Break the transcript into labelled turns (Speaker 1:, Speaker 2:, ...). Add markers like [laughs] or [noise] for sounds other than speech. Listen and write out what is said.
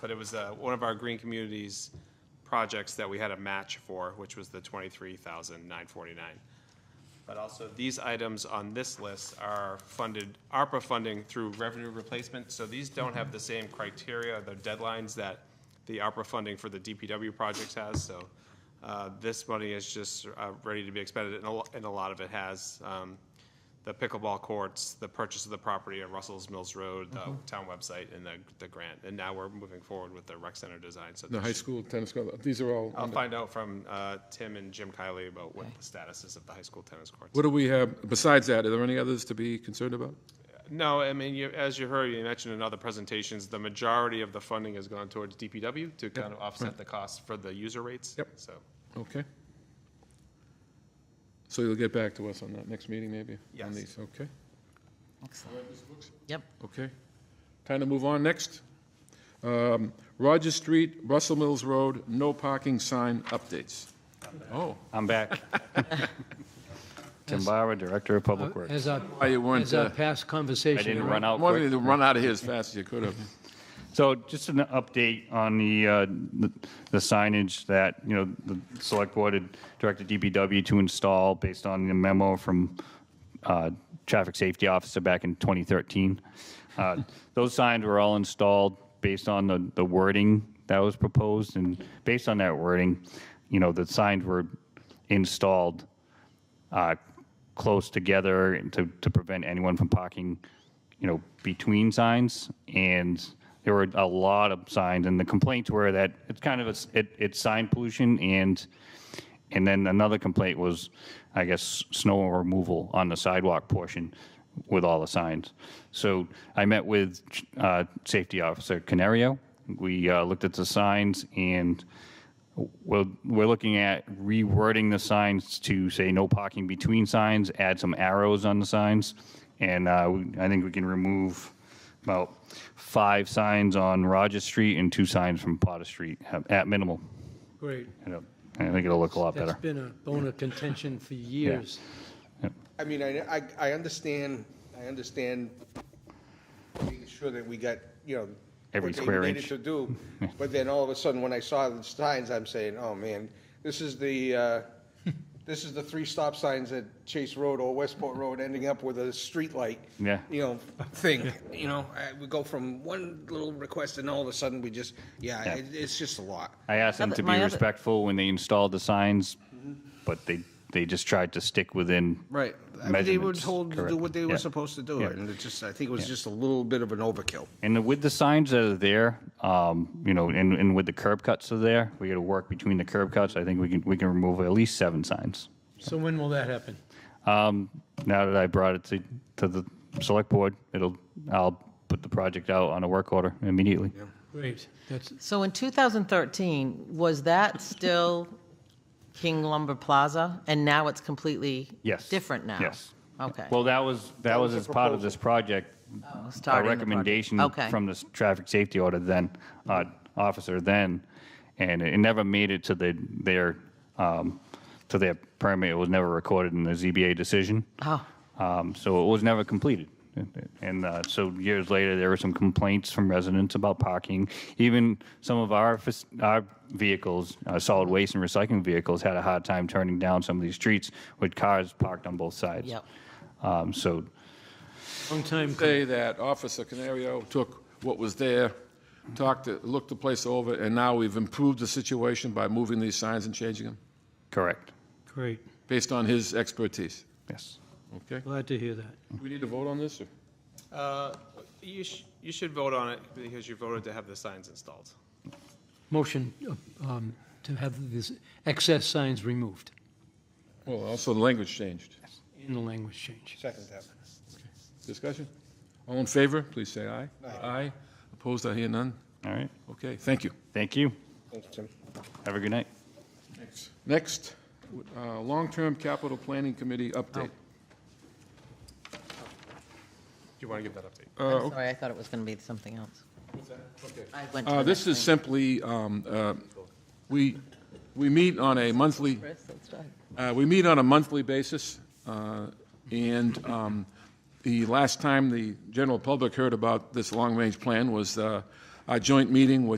Speaker 1: but it was uh, one of our green communities projects that we had a match for, which was the twenty-three thousand nine forty-nine. But also, these items on this list are funded, ARPA funding through revenue replacement, so these don't have the same criteria, the deadlines that the ARPA funding for the DPW projects has, so uh, this money is just uh, ready to be expended, and a lo- and a lot of it has. um, The pickleball courts, the purchase of the property at Russell's Mills Road, the
Speaker 2: Mm-hmm.
Speaker 1: town website, and the, the grant, and now we're moving forward with the rec center design, so.
Speaker 2: The high
Speaker 1: there's-
Speaker 2: school tennis court, these are all,
Speaker 1: I'll
Speaker 2: under-
Speaker 1: find out from uh, Tim and Jim Kiley about what the status is of the high school tennis courts.
Speaker 2: what do we have, besides that, are there any others to be concerned about?
Speaker 1: No, I mean, you, as you heard, you mentioned in other presentations, the majority of the funding has gone towards DPW to kind of offset the cost for the user rates.
Speaker 2: Yep.
Speaker 1: So,
Speaker 2: Okay. So you'll get back to us on that next meeting, maybe? on
Speaker 1: Yes.
Speaker 2: these, Okay,
Speaker 3: Excellent. Yep,
Speaker 2: okay. Time to move on, next. Um, Roger Street, Russell Mills Road, no parking sign updates. Oh,
Speaker 4: I'm [laughs] back. Tim Bauer, Director of Public Works.
Speaker 5: As our,
Speaker 2: why you weren't,
Speaker 5: as our
Speaker 2: uh,
Speaker 5: past conversation.
Speaker 4: I didn't run out
Speaker 2: wanted you
Speaker 4: quick.
Speaker 2: to run out of here as fast as you could have.
Speaker 4: So just an update on the, uh, the- the signage that, you know, the select board had directed DPW to install based on the memo from uh, Traffic Safety Officer back in 2013. Uh, Those signs were all installed based on the, the wording that was proposed, and based on that wording, you know, the signs were installed uh, close together to, to prevent anyone from parking, you know, between signs. And there were a lot of signs, and the complaints were that it's kind of a s it, it's sign pollution, and and then another complaint was, I guess, snow removal on the sidewalk portion with all the signs. So I met with uh, Safety Officer Canario. We uh, looked at the signs and we're, we're looking at rewording the signs to say no parking between signs, add some arrows on the signs, and uh, we- I think we can remove about five signs on Rogers Street and two signs from Potter Street at- at minimal.
Speaker 5: Great.
Speaker 4: And it'll- I think it'll look a lot
Speaker 5: That's
Speaker 4: better.
Speaker 5: been a bone of contention for years.
Speaker 6: I mean, I, I, I understand, I understand making sure that we got, you know.
Speaker 4: Every
Speaker 6: what they
Speaker 4: square
Speaker 6: needed
Speaker 4: inch. [laughs]
Speaker 6: To do, but then all of a sudden, when I saw the signs, I'm saying, oh, man, this is the,
Speaker 4: [laughs]
Speaker 6: uh, this is the three stop signs at Chase Road or Westport Road ending up with a street light.
Speaker 4: Yeah.
Speaker 6: You know, thing, you know, I, we go from one little request and all of a sudden we just, yeah, it, it's just a lot.
Speaker 4: I asked them
Speaker 3: Other-
Speaker 4: to be
Speaker 3: my other- Mm-hmm.
Speaker 4: respectful when they installed the signs, but they, they just tried to stick within.
Speaker 6: Right. I mean, they were
Speaker 4: Measurements,
Speaker 6: told to
Speaker 4: correct.
Speaker 6: do what they were
Speaker 4: Yeah.
Speaker 6: supposed to do,
Speaker 4: Yeah.
Speaker 6: and it just, I think it was just a little bit of an overkill.
Speaker 4: And with the signs that are there, um, you know, and, and with the curb cuts that are there, we got to work between the curb cuts. I think we can, we can remove at least seven signs.
Speaker 5: So when will that happen?
Speaker 4: Um, now that I brought it to, to the select board, it'll, I'll put the project out on a work order immediately.
Speaker 5: Great. That's,
Speaker 3: so in 2013, was that still [laughs] King Lumber Plaza? And now it's completely
Speaker 4: Yes.
Speaker 3: different now?
Speaker 4: Yes.
Speaker 3: Okay.
Speaker 4: Well, that was, that was as part of this project.
Speaker 3: starting
Speaker 4: Our
Speaker 3: the project.
Speaker 4: recommendation
Speaker 3: Okay.
Speaker 4: from the traffic safety order then, uh, officer then, and it never made it to the, their, um, to their permit. It was never recorded in the ZBA decision.
Speaker 3: Oh.
Speaker 4: Um, So it was never completed. And uh, so years later, there were some complaints from residents about parking. Even some of our, fac- our vehicles, uh, solid waste and recycling vehicles, had a hard time turning down some of these streets with cars parked on both sides.
Speaker 3: Yep.
Speaker 4: Um, So
Speaker 5: long time,
Speaker 2: say that Officer Canario took what was there, talked, it- looked the place over, and now we've improved the situation by moving these signs and changing them,
Speaker 4: Correct.
Speaker 5: great.
Speaker 2: based on his expertise.
Speaker 4: Yes.
Speaker 2: Okay?
Speaker 5: Glad to hear that.
Speaker 2: We need to vote on this? or-
Speaker 1: uh, you sh- you should vote on it because you voted to have the signs installed.
Speaker 5: Motion um, to have this excess signs removed
Speaker 2: Well, also the language changed.
Speaker 5: in the language change.
Speaker 6: Second that.
Speaker 2: Discussion? All in favor, please say aye. Aye. Opposed, I hear none.
Speaker 4: All right.
Speaker 2: Okay, thank you.
Speaker 4: Thank you.
Speaker 6: Thanks, Tim.
Speaker 4: Have a good night.
Speaker 2: Next, uh, Long-Term Capital Planning Committee update.
Speaker 1: Do you want to give that update?
Speaker 2: Uh,
Speaker 3: Sorry, I thought it was going to be something else. I went to
Speaker 2: Uh,
Speaker 3: the
Speaker 2: This is
Speaker 3: next thing.
Speaker 2: simply, um, uh, we, we meet on a monthly,
Speaker 3: Chris, let's start.
Speaker 2: uh, we meet on a monthly basis, uh, and um, the last time the general public heard about this long-range plan was uh, our joint meeting with